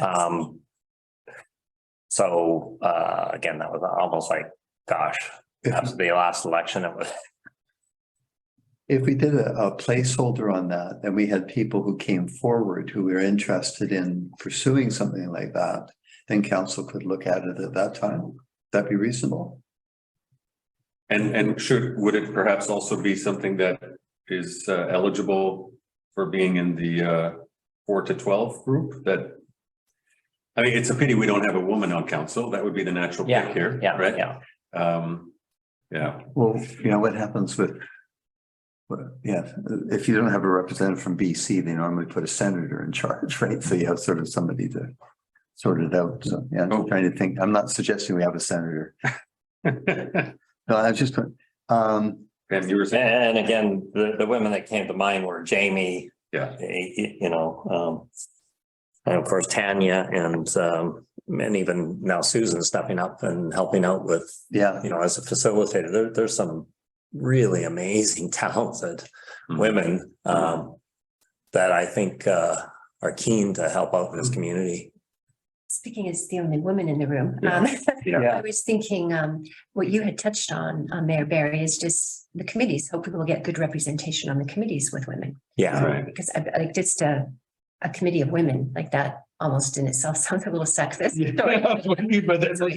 Um. So, uh, again, that was almost like, gosh, If, after the last election, it was, if we did a, a placeholder on that, and we had people who came forward who were interested in pursuing something like that, then council could look at it at that time. That'd be reasonable. And, and should, would it perhaps also be something that is uh, eligible for being in the uh, four to twelve group that? I mean, it's a pity we don't have a woman on council. That would be the natural Yeah, pick here, yeah, right? yeah. Um, yeah, Well, you know, what happens with, what, yeah, if you don't have a representative from BC, they normally put a senator in charge, right? So you have sort of somebody to sort it out. So, yeah, I'm trying to think. I'm not suggesting we have a senator. Pam, No, I was just, um, you were saying, and again, the, the women that came to mind were Jamie, yeah, eh, eh, you know, um. And of course Tanya and, um, and even now Susan stepping up and helping out with, yeah, you know, as a facilitator, there, there's some really amazing talented Mhm. women, um. That I think, uh, are keen to help out Mm-hmm. in this community. Speaking as the only woman in the room, Yeah. um, Yeah. I was thinking, um, what you had touched on, uh, Mayor Barry, is just the committees. Hopefully we'll get good representation on the committees with women. Um, Yeah, right, Because I, I like just a, a committee of women like that almost in itself sounds a little sexist. Sorry.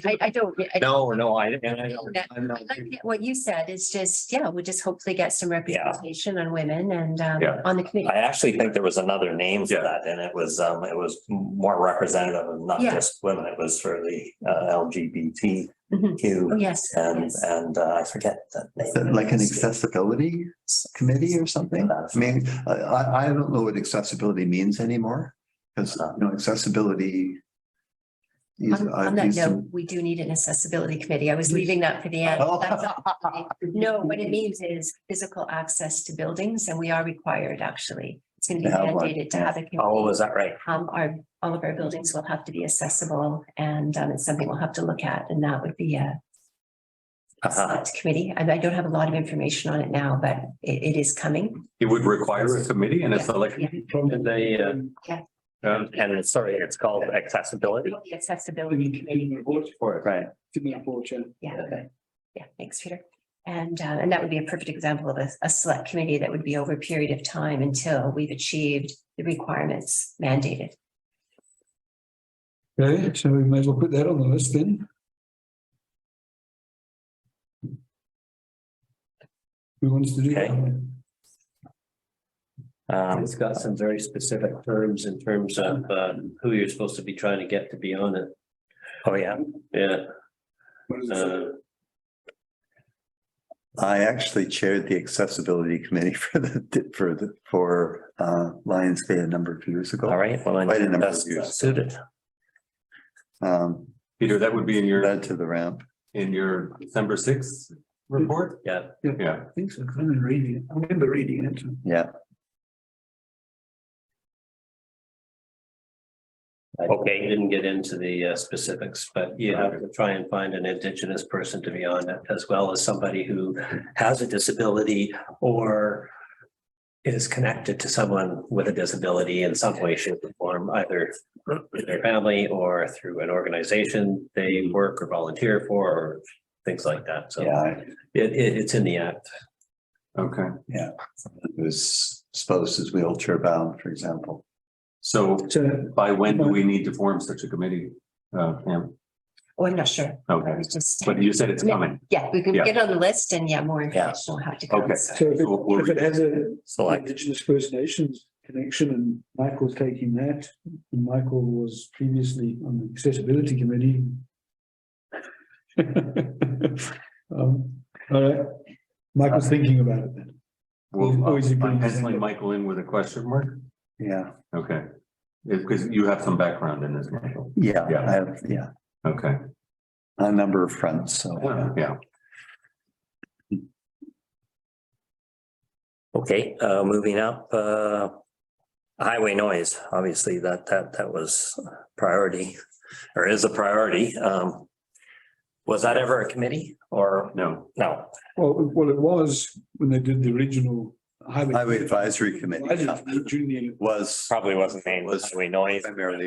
I, I don't, I no, no, I, and I don't. That- I'm I not- like that What you said is just, yeah, we just hopefully get some representation on women and, um, Yeah. on the committee. I actually think there was another name for Yeah. that, and it was, um, it was more representative of not Yeah. just women, it was for the uh Mhm. Oh, LGBTQ. yes. And, yes. and uh, I forget that Is name. that like an accessibility committee or something? I mean, I, I, I don't know what accessibility means anymore, because, you know, accessibility. is- On I've on that used note, some- we do need an accessibility committee. I was leaving that for the end. Oh. That's all. No, what it means is physical access to buildings and we are required actually. It's going to be To have one, mandated to have a Oh, committee. is that right? Um, our, all of our buildings will have to be accessible and, um, it's something we'll have to look at and that would be a Uh-huh. select committee. I, I don't have a lot of information on it now, but it, it is coming. it would require a committee and a select. Yeah. And Yeah. they, uh. And it's, sorry, it's called accessibility. The Accessibility committee. Right, to me a fortune. Yeah. Yeah, thanks, Peter. And, uh, and that would be a perfect example of a, a select committee that would be over a period of time until we've achieved the requirements mandated. Okay, so we may as well put that on the list then. Who wants to do that? Um, It's got some very specific terms in terms of uh, who you're supposed to be trying to get to be on it. oh, yeah, Yeah. What is it? uh, Oh. I actually chaired the accessibility committee for the, for the, for, uh, Lions Bay a number of years ago. all right, well, Quite a number then of that's years. suited. Um, Peter, that would be in your, led to the ramp. in your December sixth report? Yeah. Yeah, I think so, 'cause I'm reading it. I remember reading it. Yeah, I Okay. Didn't get into the uh, specifics, but you have to try and find an indigenous person to be on it as well as somebody who has a disability or is connected to someone with a disability in some way, shape or form, either through their family or through an organization they work or volunteer for or things like that. So yeah, I- it, it, it's in the act. okay. it was supposed as wheelchair bound, for example. So So, by when do we need to form such a committee? Uh, Pam, Oh, I'm not sure. okay, It's just, but you said it's coming. yeah, we can Yeah. get on the list and yeah, more Yeah. information will have to come. Okay. So- so if it- We'll- we'll if it has a Select, Indigenous First Nations connection and Michael's taking that, and Michael was previously on the accessibility committee. Um, all right, Michael's thinking about it then. Well, Oh, is it I'm going to- penciling Michael in with a question mark. Yeah, Okay. Because you have some background in this, Michael. yeah, Yeah. I have, yeah, Okay, a number of fronts, so. yeah. yeah. okay, uh, moving up, uh. Highway noise, obviously, that, that, that was priority, or is a priority, um. Was that ever a committee or, No, no, Well, well, it was when they did the original highway. Highway Advisory Committee. Advisory Committee During the Was probably wasn't named Was highway noise. primarily